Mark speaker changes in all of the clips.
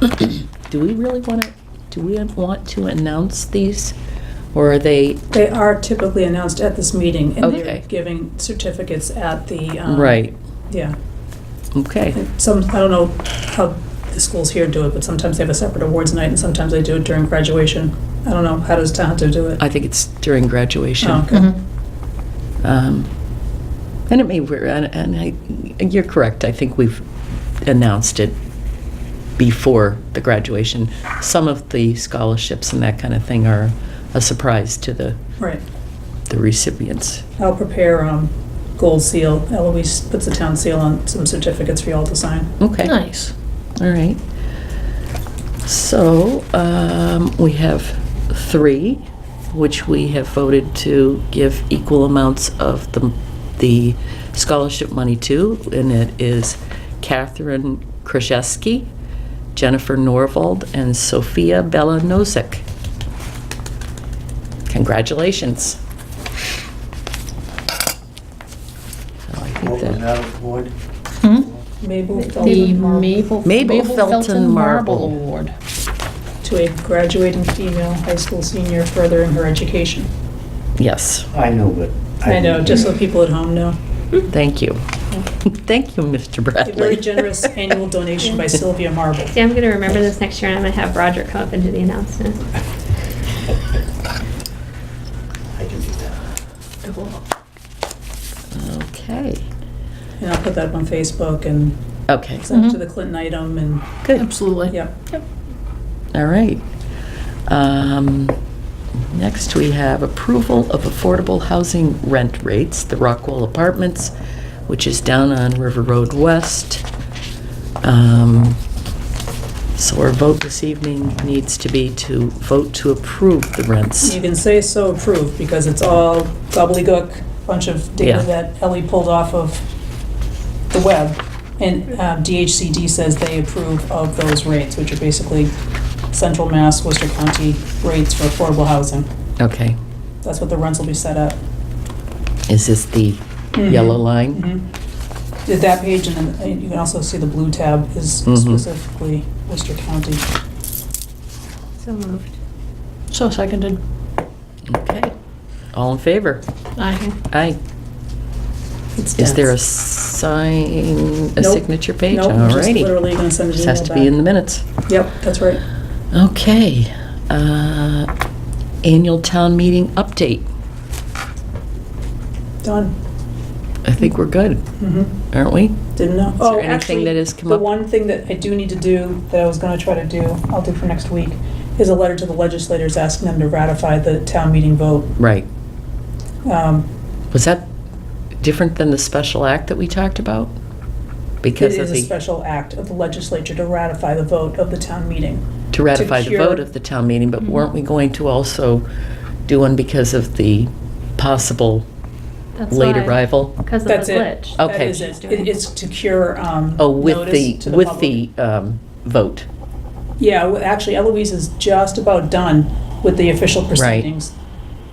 Speaker 1: do we really want to, do we want to announce these? Or are they,
Speaker 2: They are typically announced at this meeting, and they're
Speaker 1: Okay.
Speaker 2: giving certificates at the. um,
Speaker 1: right,
Speaker 2: Yeah.
Speaker 1: okay,
Speaker 2: And Some, I don't know how the schools here do it, but sometimes they have a separate awards night, and sometimes they do it during graduation. I don't know, how does Tohoto do it?
Speaker 1: I think it's during graduation.
Speaker 2: Oh, okay.
Speaker 3: Mhm.
Speaker 1: Um, And it may, we're- and and I, you're correct, I think we've announced it before the graduation. Some of the scholarships and that kind of thing are a surprise to the,
Speaker 2: Right.
Speaker 1: the recipients.
Speaker 2: I'll prepare um, gold seal. Eloise puts a town seal on some certificates for y'all to sign.
Speaker 1: Okay.
Speaker 3: Nice.
Speaker 1: All right. So, um, we have three, which we have voted to give equal amounts of the, the scholarship money to, and it is Catherine Krajewski, Jennifer Norvald, and Sophia Bella Nozick. Congratulations. So Oh, I think
Speaker 4: What was
Speaker 1: that-
Speaker 4: that award?
Speaker 3: Hmm?
Speaker 2: Mabel
Speaker 3: The
Speaker 2: Feldman Mar-
Speaker 3: Mabel.
Speaker 1: Mabel Felton Marble.
Speaker 3: Award.
Speaker 2: to a graduating female high school senior furthering her education.
Speaker 1: Yes,
Speaker 4: I know, but.
Speaker 2: I know, just so people at home know.
Speaker 1: thank you. Thank you, Mr.
Speaker 2: A
Speaker 1: Bradley.
Speaker 2: very generous annual donation by Sylvia Marble.
Speaker 5: See, I'm going to remember this next year, and I'm going to have Roger come up and do the announcement.
Speaker 4: I can do that.
Speaker 1: Okay,
Speaker 2: And I'll put that up on Facebook and
Speaker 1: okay,
Speaker 2: send it to
Speaker 3: Mhm.
Speaker 2: the Clinton item and,
Speaker 1: good,
Speaker 3: Absolutely.
Speaker 2: yep.
Speaker 1: all right. Um, Next, we have approval of affordable housing rent rates, the Rockwell Apartments, which is down on River Road West. Um, So our vote this evening needs to be to vote to approve the rents.
Speaker 2: You can say so approved because it's all gobbledygook, bunch of
Speaker 1: Yeah.
Speaker 2: data that Ellie pulled off of the web. And uh, DHCD says they approve of those rates, which are basically Central Mass, Worcester County rates for affordable housing.
Speaker 1: Okay,
Speaker 2: That's what the rents will be set at.
Speaker 1: is this the Mm-hmm. yellow
Speaker 2: Mm-hmm.
Speaker 1: line?
Speaker 2: Did Mm-hmm. that page, and then uh, you can also see the blue tab is
Speaker 1: Mhm.
Speaker 2: specifically Worcester County.
Speaker 5: So moved.
Speaker 3: So seconded.
Speaker 1: Okay, all in favor?
Speaker 3: Aye.
Speaker 1: Aye.
Speaker 2: It's
Speaker 1: Is there a
Speaker 2: dense.
Speaker 1: sign, a
Speaker 2: Nope.
Speaker 1: signature page?
Speaker 2: Nope,
Speaker 1: All
Speaker 2: I'm just
Speaker 1: righty.
Speaker 2: literally gonna send an
Speaker 1: Just has to
Speaker 2: email
Speaker 1: be in the
Speaker 2: back.
Speaker 1: minutes.
Speaker 2: Yep, that's right.
Speaker 1: Okay. uh, Annual town meeting update.
Speaker 2: Done.
Speaker 1: I think we're good,
Speaker 2: Mhm.
Speaker 1: aren't we?
Speaker 2: Didn't know.
Speaker 1: there
Speaker 2: Oh,
Speaker 1: anything
Speaker 2: actually,
Speaker 1: that has come
Speaker 2: the
Speaker 1: up?
Speaker 2: one thing that I do need to do, that I was gonna try to do, I'll do for next week, is a letter to the legislators asking them to ratify the town meeting vote.
Speaker 1: Right.
Speaker 2: Um,
Speaker 1: Was that different than the special act that we talked about?
Speaker 2: It
Speaker 1: Because of
Speaker 2: is a
Speaker 1: the,
Speaker 2: special act of the legislature to ratify the vote of the town meeting.
Speaker 1: to ratify the
Speaker 2: cure-
Speaker 1: vote of the town meeting, but
Speaker 3: Mhm.
Speaker 5: Mm-hmm.
Speaker 1: weren't we going to also do one because of the possible
Speaker 5: That's
Speaker 1: late
Speaker 5: why.
Speaker 1: arrival?
Speaker 5: Because of the
Speaker 2: That's it.
Speaker 5: glitch.
Speaker 1: Oh.
Speaker 2: That
Speaker 1: Okay.
Speaker 2: is it. It- It's to cure um,
Speaker 1: Oh, with
Speaker 2: notice
Speaker 1: the,
Speaker 2: to the
Speaker 1: with
Speaker 2: public.
Speaker 1: the um, vote.
Speaker 2: Yeah, well, actually Eloise is just about done with the official proceedings.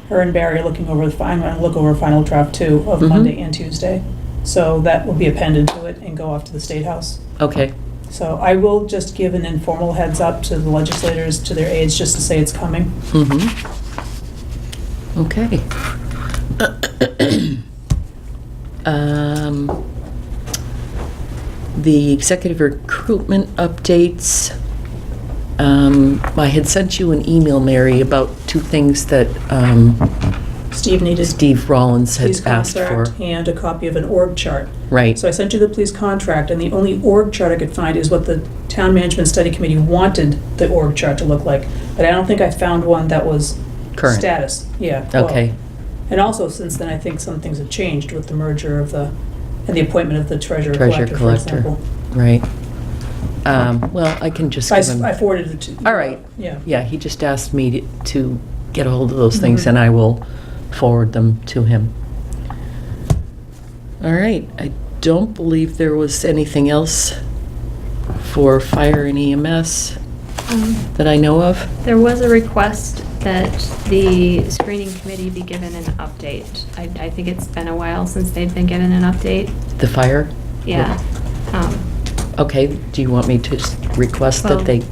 Speaker 2: Her and Barry are looking over the final, and look over final draft two of
Speaker 1: Mhm.
Speaker 2: Monday and Tuesday. So that will be appended to it and go off to the State House.
Speaker 1: Okay,
Speaker 2: So I will just give an informal heads up to the legislators, to their aides, just to say it's coming.
Speaker 1: Mm-hmm. Okay. Um, The executive recruitment updates. Um, I had sent you an email, Mary, about two things that um,
Speaker 2: Steve needed
Speaker 1: Steve Rollins had
Speaker 2: police
Speaker 1: asked for.
Speaker 2: contract and a copy of an org chart.
Speaker 1: Right,
Speaker 2: So I sent you the police contract, and the only org chart I could find is what the town management study committee wanted the org chart to look like. But I don't think I found one that was
Speaker 1: current.
Speaker 2: status. Yeah. well,
Speaker 1: Okay,
Speaker 2: And also, since then, I think some things have changed with the merger of the, and the appointment of the treasurer
Speaker 1: Treasurer
Speaker 2: collector, for
Speaker 1: collector.
Speaker 2: example.
Speaker 1: right. Um, Well, I can just
Speaker 2: I
Speaker 1: give
Speaker 2: s- I
Speaker 1: him,
Speaker 2: forwarded it to.
Speaker 1: All right.
Speaker 2: Yeah.
Speaker 1: yeah, he just asked me to- to get a hold of those things,
Speaker 2: Mhm.
Speaker 1: and I will forward them to him. All right, I don't believe there was anything else for fire and EMS
Speaker 5: Um,
Speaker 1: that I know of.
Speaker 5: There was a request that the screening committee be given an update. I, I think it's been a while since they've been given an update.
Speaker 1: The fire?
Speaker 5: Yeah. Um,
Speaker 1: Okay, do you want me to s- request
Speaker 5: Well-
Speaker 1: that they